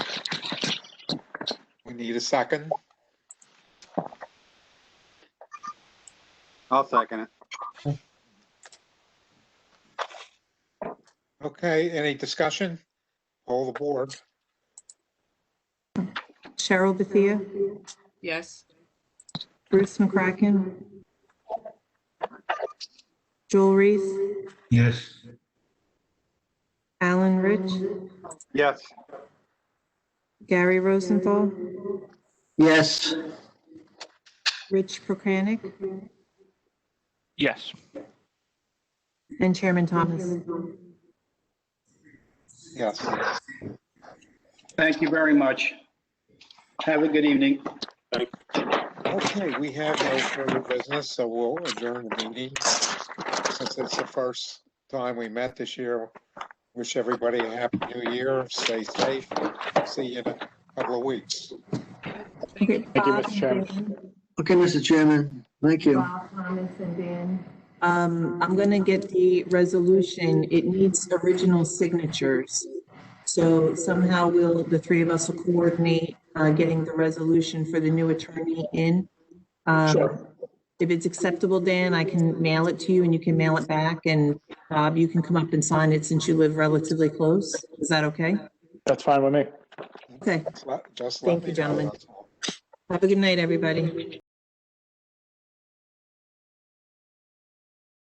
We need a second. I'll second it. Okay, any discussion? All the board. Cheryl Bethia, Yes. Bruce McCracken, Joel Reese, Yes. Alan Rich, Yes, Gary Rosenthal, yes, Rich Prokranik, Yes. and Chairman Thomas. Yes. thank you very much. Have a good evening. Okay, we have no further business, so we'll adjourn the meeting. Since it's the first time we met this year, wish everybody a happy new year. Stay safe. See you in a couple of weeks. Thank you, Mr. Chairman. Okay, Mr. Chairman, thank you. Um, I'm gonna get the resolution. It needs original signatures. So somehow we'll, the three of us will coordinate, uh, getting the resolution for the new attorney in. Um, If it's acceptable, Dan, I can mail it to you and you can mail it back and Bob, you can come up and sign it since you live relatively close. Is that okay? That's fine with me. Okay. Just let- Just let Thank me you, know, gentlemen. that's all. Have a good night, everybody.